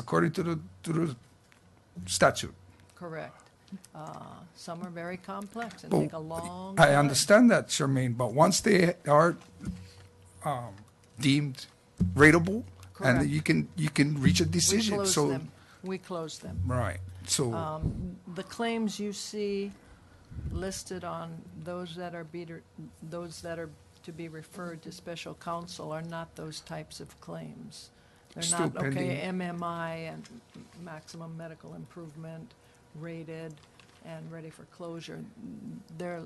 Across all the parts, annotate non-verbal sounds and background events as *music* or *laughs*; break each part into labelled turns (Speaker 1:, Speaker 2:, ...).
Speaker 1: according to the, to the statute.
Speaker 2: Correct. Uh, Some are very complex and
Speaker 1: But
Speaker 2: take a long
Speaker 1: I
Speaker 2: time.
Speaker 1: understand that, Charmaine, but once they are um, deemed rateable,
Speaker 2: Correct.
Speaker 1: and you can, you can reach a
Speaker 2: We
Speaker 1: decision,
Speaker 2: close
Speaker 1: so,
Speaker 2: them. Um, We close them.
Speaker 1: right, so,
Speaker 2: The claims you see listed on those that are beater, those that are to be referred to special counsel are not those types of claims. They're
Speaker 1: Still
Speaker 2: not, okay,
Speaker 1: pending.
Speaker 2: MMI and maximum medical improvement rated and ready for closure. They're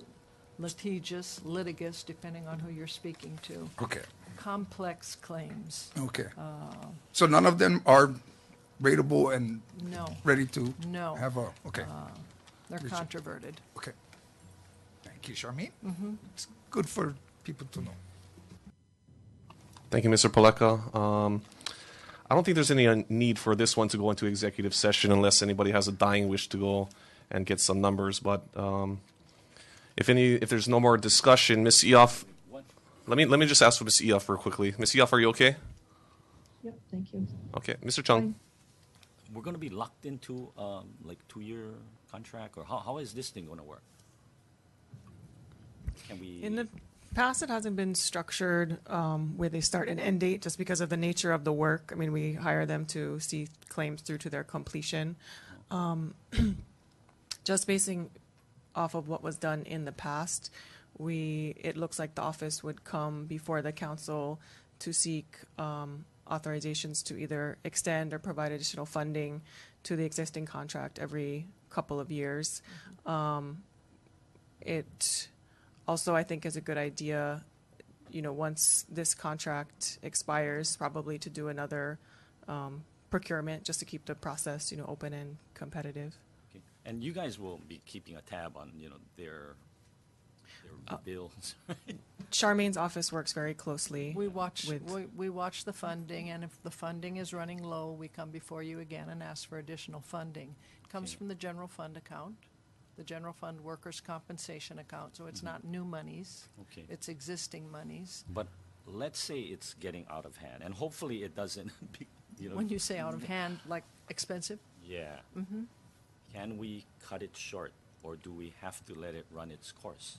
Speaker 2: litigious, litigious, depending on who you're speaking to.
Speaker 1: okay,
Speaker 2: complex claims.
Speaker 1: okay.
Speaker 2: uh,
Speaker 1: So none of them are rateable and
Speaker 2: No,
Speaker 1: ready to
Speaker 2: No. Uh,
Speaker 1: have a, okay,
Speaker 2: they're controverted.
Speaker 1: okay. Thank you, Charmaine.
Speaker 2: Mm-hmm.
Speaker 1: It's good for people to know.
Speaker 3: Thank you, Mr. Paleka. Um, I don't think there's any uh, need for this one to go into executive session unless anybody has a dying wish to go and get some numbers. But um, if any, if there's no more discussion, Ms. Eoff, let me let me just ask for Ms. Eoff real quickly. Ms. Eoff, are you okay?
Speaker 4: Yep, thank you.
Speaker 3: Okay, Mr. Chung.
Speaker 5: we're going to be locked into um, like two-year contract, or how, how is this thing going to work? Can we?
Speaker 6: In the past, it hasn't been structured um, where they start and end date, just because of the nature of the work. I mean, we hire them to see claims through to their completion. Um, *clears throat* Just basing off of what was done in the past, we, it looks like the office would come before the council to seek um, authorizations to either extend or provide additional funding to the existing contract every couple of years Um, it also i think is a good idea you know once this contract expires probably to do another um, procurement just to keep the process you know open and competitive
Speaker 5: okay. And you guys will be keeping a tab on you know their their bills. *laughs*
Speaker 6: charmaine's office works very closely
Speaker 2: We watch,
Speaker 6: With-
Speaker 2: we, we watch the funding, and if the funding is running low, we come before you again and ask for additional funding. It Comes
Speaker 5: Okay.
Speaker 2: from the general fund account, the general fund workers' compensation account, so it's
Speaker 5: Mm-hmm.
Speaker 2: not new monies.
Speaker 5: Okay.
Speaker 2: It's existing monies.
Speaker 5: but let's say it's getting out of hand, and hopefully it doesn't. *laughs* Be, you know. mm-hmm.
Speaker 2: When you say out of hand, like expensive,
Speaker 5: yeah. Mm-hmm. Can we cut it short, or do we have to let it run its course?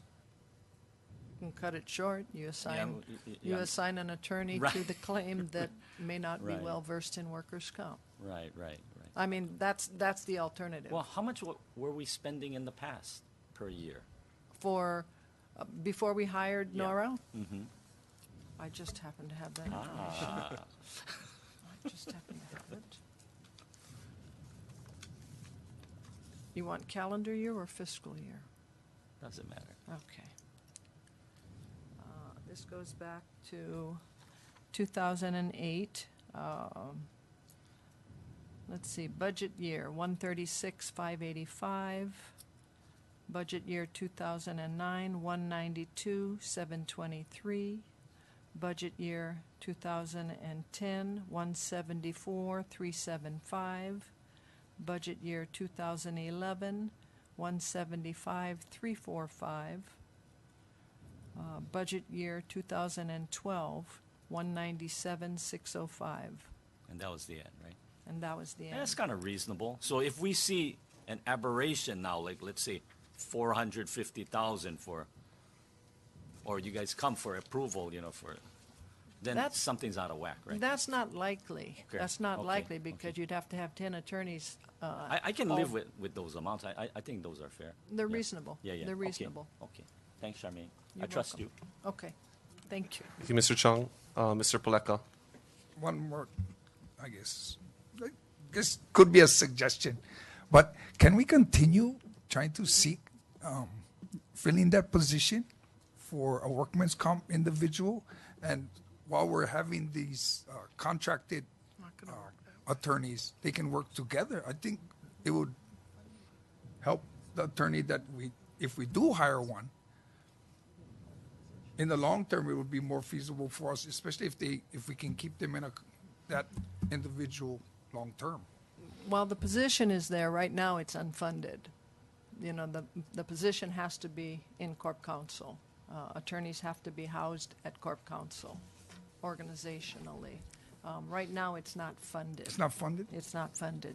Speaker 2: you can cut it short, you assign,
Speaker 5: y- y-
Speaker 2: you
Speaker 5: yeah.
Speaker 2: assign an attorney to
Speaker 5: Right.
Speaker 2: the claim
Speaker 5: *laughs*
Speaker 2: that may not be
Speaker 5: Right.
Speaker 2: well-versed in workers' comp.
Speaker 5: Right, right, right.
Speaker 2: I mean, that's, that's the alternative.
Speaker 5: Well, how much wa- were we spending in the past per year?
Speaker 2: For, uh, before we hired
Speaker 5: Yeah. Mm-hmm.
Speaker 2: Nora? I just happen to have that *laughs* information.
Speaker 5: Ah,
Speaker 2: I just happen to have it. You want calendar year or fiscal year?
Speaker 5: doesn't matter.
Speaker 2: Okay. Uh, This goes back to 2008. um, Let's see, budget year, 136, 585. Budget year 2009, 192, 723. Budget year 2010, 174, 375. Budget year 2011, 175, 345. Uh, Budget year 2012, 197, 605.
Speaker 5: And that was the end, right?
Speaker 2: And that was the
Speaker 5: And That's
Speaker 2: end.
Speaker 5: kind of reasonable. So if we see an aberration now, like, let's say, four hundred fifty thousand for, or you guys come for approval, you know, for, then
Speaker 2: That's-
Speaker 5: something's out of whack, right?
Speaker 2: That's not likely.
Speaker 5: Okay,
Speaker 2: That's not
Speaker 5: okay,
Speaker 2: likely
Speaker 5: okay.
Speaker 2: because you'd have to have 10 attorneys. uh,
Speaker 5: I, I can
Speaker 2: all-
Speaker 5: live with, with those amounts. I, I, I think those are fair.
Speaker 2: They're
Speaker 5: Yeah.
Speaker 2: reasonable.
Speaker 5: Yeah, yeah.
Speaker 2: They're
Speaker 5: Okay,
Speaker 2: reasonable.
Speaker 5: Okay. Thanks, Charmaine. I
Speaker 2: You're
Speaker 5: trust you.
Speaker 2: welcome. Okay, thank you.
Speaker 3: Thank you, Mr. Chung. Uh, Mr. Paleka.
Speaker 1: one more, I guess, like, this could be a suggestion, but can we continue trying to seek um, filling that position for a workman's comp individual? And while we're having these uh, contracted uh, attorneys, they can work together. I think it would help the attorney that we, if we do hire one, in the long term, it would be more feasible for us, especially if they, if we can keep them in a, that individual long term.
Speaker 2: While the position is there, right now it's unfunded. You know, the, the position has to be in corp counsel. Uh, Attorneys have to be housed at corp counsel organizationally. Um, Right now, it's not funded.
Speaker 1: It's not funded?
Speaker 2: It's not funded.